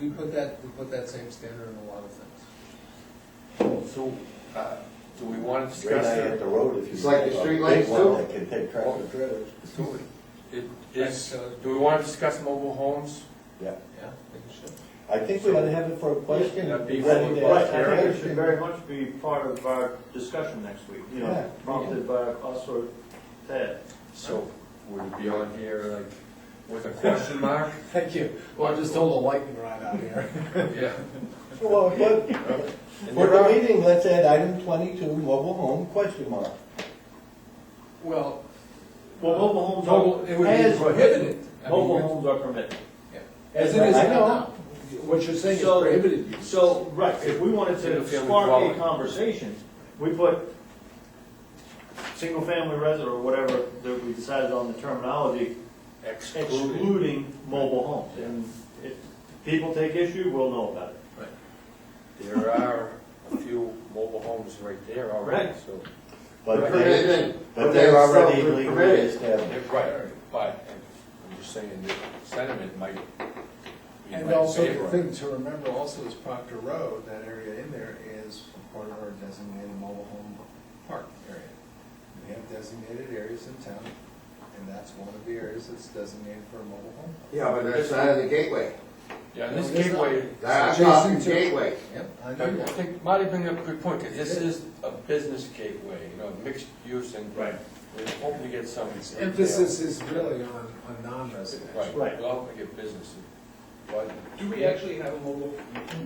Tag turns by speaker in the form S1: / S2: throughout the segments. S1: we put that, we put that same standard in a lot of things.
S2: So, uh, do we want to
S3: Right
S2: discuss
S3: now, at
S2: that?
S3: the road, if you.
S4: It's like the
S3: have a
S4: street
S3: big
S4: lights,
S3: one
S4: too.
S3: That can take tractor trailers.
S2: Do we- it is- uh, do we want to discuss mobile homes?
S3: Yeah,
S1: Yeah, I think it should.
S3: I think we
S5: So-
S3: ought to have it for a question.
S2: That'd be
S3: ready to
S2: for-
S5: Right,
S3: ask
S5: I think it should
S3: here.
S5: very much be part of our discussion next week, you
S3: Yeah.
S5: know, prompted by us or Ted.
S2: So, would it be on here like with a question mark?
S1: Thank you. Well, I just told a lightning rod out here.
S2: Yeah.
S3: Well, but,
S2: And there
S3: for the
S2: are-
S3: meeting, let's add item twenty-two, mobile home, question mark.
S1: Well,
S5: Well, mobile homes
S1: mobile, it
S5: are,
S1: would be
S5: as
S1: prohibited.
S5: prohibited,
S1: I mean,
S5: mobile homes are permitted.
S1: As it is
S3: I know.
S1: now. What you're saying is
S5: So-
S1: prohibited use.
S5: So, right, if we wanted to
S2: Single-family
S5: spark a
S2: dwelling.
S5: conversation, we put single-family resident or whatever that we decided on the terminology,
S2: Excluded.
S5: excluding mobile homes. And if people take issue, we'll know about it.
S2: There are a few mobile homes right there already,
S5: Right.
S2: so.
S3: But they,
S4: Permitted.
S3: but they're already
S4: Permitted.
S3: legally
S4: Permitted.
S3: established.
S2: Right, but I'm just saying that sentiment might be in
S1: And
S2: my
S1: also, the
S2: favor.
S1: thing to remember also is Proctor Road, that area in there is part of our designated mobile home park area. We have designated areas in town, and that's one of the areas that's designated for a mobile home.
S4: Yeah, but that's out of the gateway.
S2: Yeah, and this
S1: No, it is not.
S2: gateway,
S4: That's
S1: Adjacent
S4: off the
S1: to-
S4: gateway.
S1: Yep, I
S2: I
S1: know that.
S2: think Marty bring up a good point, because this is a business gateway, you know, mixed use and.
S5: Right.
S2: We hope we get some.
S1: Emphasis is really on, on non-residential.
S2: Right,
S5: Right.
S2: we'll hope we get business. But
S6: Do we actually have a mobile,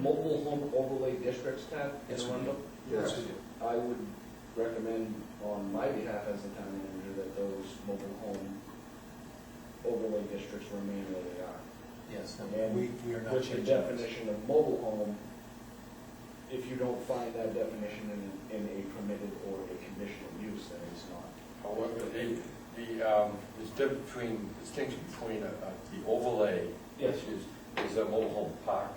S6: mobable home overlay districts tab
S1: Yes, we
S6: in Arundel?
S1: Yes.
S6: I would recommend on my behalf as the town manager that those mobile home overlay districts remain where they are.
S1: Yes,
S6: And
S1: we, we are not
S6: With the
S1: changing that.
S6: definition of mobile home, if you don't find that definition in, in a permitted or a conditional use, then it's not.
S2: however, the, the, um, there's difference between, distinction between uh, uh, the overlay, which
S6: Yes.
S2: is, is a mobile home park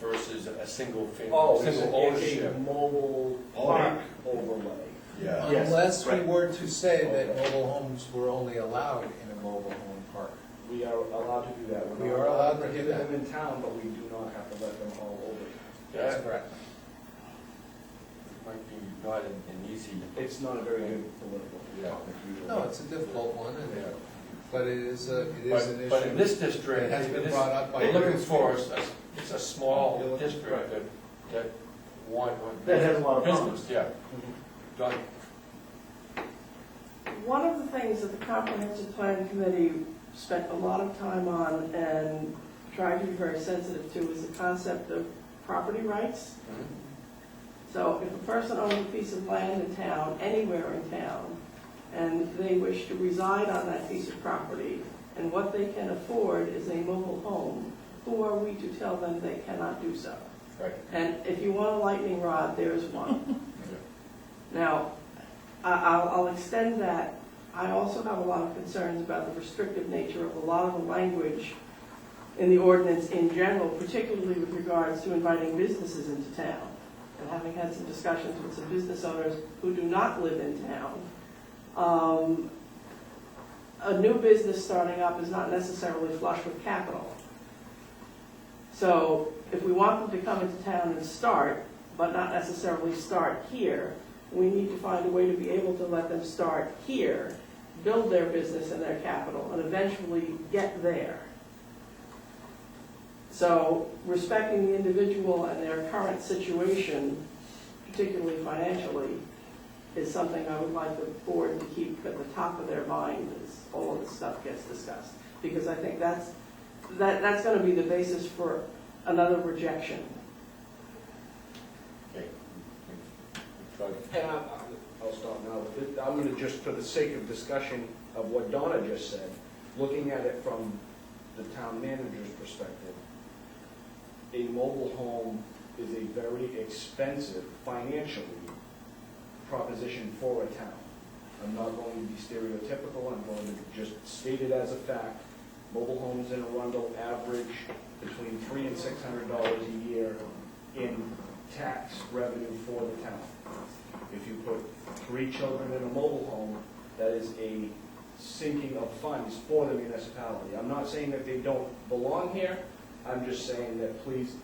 S2: versus a single family,
S6: Oh, it's
S2: single
S6: a,
S2: ownership.
S6: mobile
S2: park
S6: park overlay.
S3: Yeah.
S5: Yes,
S1: Unless we
S5: right.
S1: were to say that
S6: Okay.
S1: mobile homes were only allowed in a mobile home park.
S6: We are allowed to do that. We're
S1: We
S6: not
S1: are allowed to do
S6: give
S1: that.
S6: them in town, but we do not have to let them all over.
S1: That's
S2: That
S1: correct.
S2: might be not an, an easy,
S6: It's not a very good political
S2: Yeah.
S6: topic usually.
S1: No, it's a difficult one, and,
S2: yeah.
S1: but it is a, it is an
S2: But, but in
S1: issue.
S2: this district,
S1: It has been
S2: this-
S1: brought up by.
S2: they're looking for, is a- it's a
S1: You're
S2: small
S1: looking-
S2: district that, that one. one-
S5: That has a lot of Mm-hmm.
S2: Business, yeah. Done.
S7: One of the things that the comprehensive plan committee spent a lot of time on and tried to be very sensitive to is the concept of property rights.
S2: Mm-hmm.
S7: So if a person owns a piece of land in town, anywhere in town, and they wish to reside on that piece of property, and what they can afford is a mobile home, who are we to tell them they cannot do so?
S2: Right.
S7: And if you want a lightning rod, there's one. Now, I- I'll, I'll extend that. I also have a lot of concerns about the restrictive nature of a lot of the language in the ordinance in general, particularly with regards to inviting businesses into town. And having had some discussions with some business owners who do not live in town, um, a new business starting up is not necessarily flush with capital. So if we want them to come into town and start, but not necessarily start here, we need to find a way to be able to let them start here, build their business and their capital, and eventually get there. So respecting the individual and their current situation, particularly financially, is something I would like the board to keep at the top of their mind as all of this stuff gets discussed. Because I think that's that, that's gonna be the basis for another rejection.
S2: Okay. Done.
S6: And I, I- I'll stop now, but th- I'm gonna just, for the sake of discussion of what Donna just said, looking at it from the town manager's perspective, a mobile home is a very expensive financially proposition for a town. I'm not going to be stereotypical, I'm going to just state it as a fact. Mobile homes in Arundel average between three and six hundred dollars a year in tax revenue for the town. If you put three children in a mobile home, that is a sinking of funds for the municipality. I'm not saying that they don't belong here, I'm just saying that please